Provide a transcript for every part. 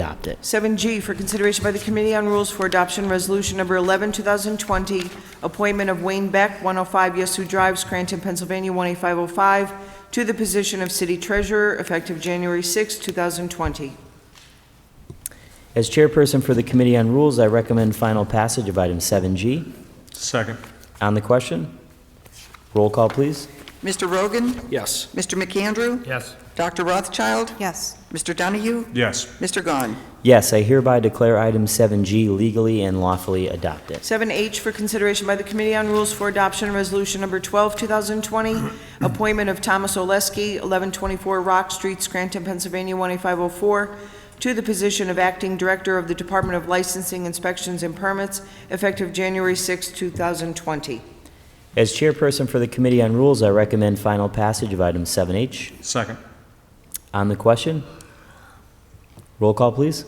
adopt it. 7G for consideration by the Committee on Rules for Adoption Resolution Number 11, 2020, appointment of Wayne Beck, 105 Yesu Drive, Scranton, Pennsylvania, 18505, to the position of City Treasurer effective January 6, 2020. As chairperson for the Committee on Rules, I recommend final passage of item 7G. Second. On the question, roll call, please. Mr. Rogan? Yes. Mr. McAndrew? Yes. Dr. Rothschild? yes, Mr. Donahue? Yes. Mr. Gahn? Yes, I hereby declare item 7G legally and lawfully adopted. 7H for consideration by the Committee on Rules for Adoption Resolution Number 12, 2020, appointment of Thomas Oleski, 1124 Rock Street, Scranton, Pennsylvania, 18504, to the position of Acting Director of the Department of Licensing, Inspections, and Permits, effective January 6, 2020. As chairperson for the Committee on Rules, I recommend final passage of item 7H. Second. On the question, roll call, please.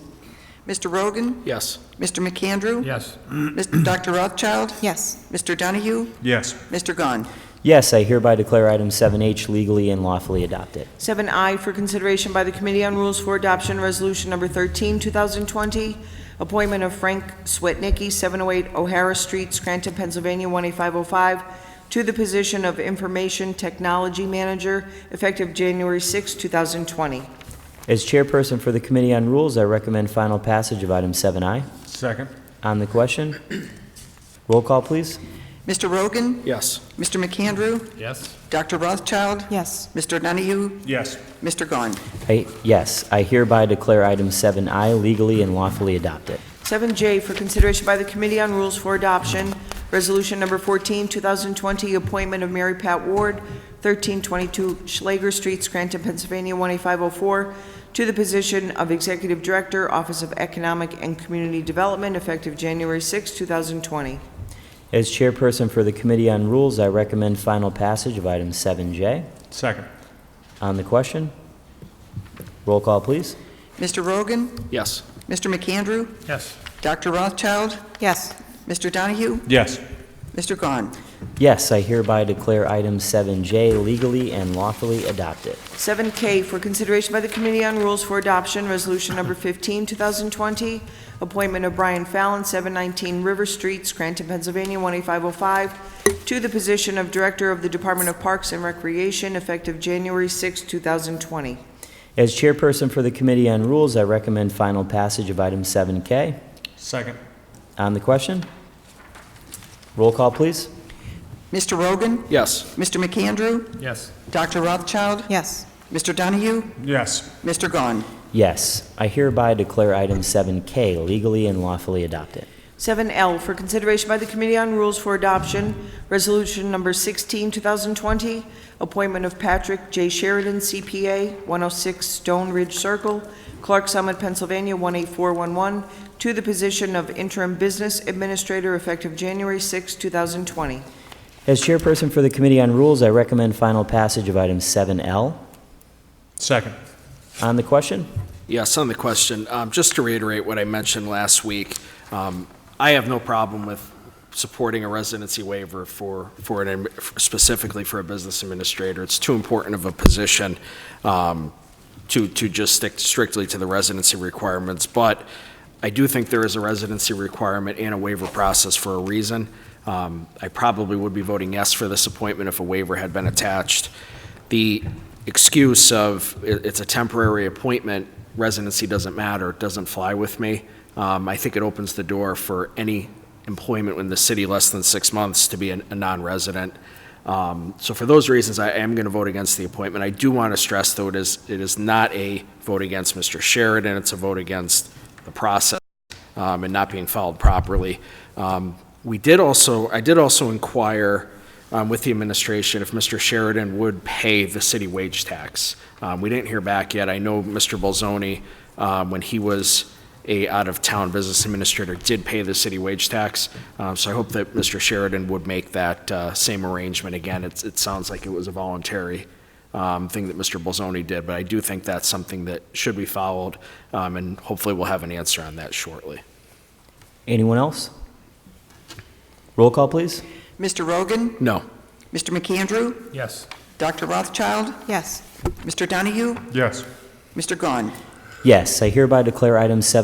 Mr. Rogan? Yes. Mr. McAndrew? Yes. Mr. Dr. Rothschild? yes, Mr. Donahue? Yes. Mr. Gahn? Yes, I hereby declare item 7H legally and lawfully adopted. 7I for consideration by the Committee on Rules for Adoption Resolution Number 13, 2020, appointment of Frank Swetnicki, 708 O'Hara Street, Scranton, Pennsylvania, 18505, to the position of Information Technology Manager, effective January 6, 2020. As chairperson for the Committee on Rules, I recommend final passage of item 7I. Second. On the question, roll call, please. Mr. Rogan? Yes. Mr. McAndrew? Yes. Dr. Rothschild? yes, Mr. Donahue? Yes. Mr. Gahn? I- Yes, I hereby declare item 7I legally and lawfully adopted. 7J for consideration by the Committee on Rules for Adoption, Resolution Number 14, 2020, appointment of Mary Pat Ward, 1322 Schlager Street, Scranton, Pennsylvania, 18504, to the position of Executive Director, Office of Economic and Community Development, effective January 6, 2020. As chairperson for the Committee on Rules, I recommend final passage of item 7J. Second. On the question, roll call, please. Mr. Rogan? Yes. Mr. McAndrew? Yes. Dr. Rothschild? yes, Mr. Donahue? Yes. Mr. Gahn? Yes, I hereby declare item 7J legally and lawfully adopted. 7K for consideration by the Committee on Rules for Adoption, Resolution Number 15, 2020, appointment of Brian Fallon, 719 River Street, Scranton, Pennsylvania, 18505, to the position of Director of the Department of Parks and Recreation, effective January 6, 2020. As chairperson for the Committee on Rules, I recommend final passage of item 7K. Second. On the question, roll call, please. Mr. Rogan? Yes. Mr. McAndrew? Yes. Dr. Rothschild? yes, Mr. Donahue? Yes. Mr. Gahn? Yes, I hereby declare item 7K legally and lawfully adopted. 7L for consideration by the Committee on Rules for Adoption, Resolution Number 16, 2020, appointment of Patrick J. Sheridan, CPA, 106 Stone Ridge Circle, Clark Summit, Pennsylvania, 18411, to the position of interim business administrator effective January 6, 2020. As chairperson for the Committee on Rules, I recommend final passage of item 7L. Second. On the question, Yes, on the question, um, just to reiterate what I mentioned last week, um, I have no problem with supporting a residency waiver for, for an, admi- specifically for a business administrator. It's too important of a position um, to, to just stick strictly to the residency requirements. But I do think there is a residency requirement and a waiver process for a reason. Um, I probably would be voting yes for this appointment if a waiver had been attached. The excuse of it- it's a temporary appointment, residency doesn't matter, doesn't fly with me. Um, I think it opens the door for any employment in the city less than six months to be an- a non-resident. Um, So for those reasons, I am going to vote against the appointment. I do want to stress, though, it is, it is not a vote against Mr. Sheridan, it's a vote against the process um, and not being followed properly. Um, We did also, I did also inquire um, with the administration if Mr. Sheridan would pay the city wage tax. Um, We didn't hear back yet. I know Mr. Bolzoni, um, when he was a out-of-town business administrator, did pay the city wage tax. Um, So I hope that Mr. Sheridan would make that uh, same arrangement again. It's- It sounds like it was a voluntary um, thing that Mr. Bolzoni did, but I do think that's something that should be followed, um, and hopefully we'll have an answer on that shortly. anyone else? Roll call, please. Mr. Rogan? No. Mr. McAndrew? Yes. Dr. Rothschild? yes, Mr. Donahue? Yes. Mr. Gahn? Yes, I hereby declare item seven.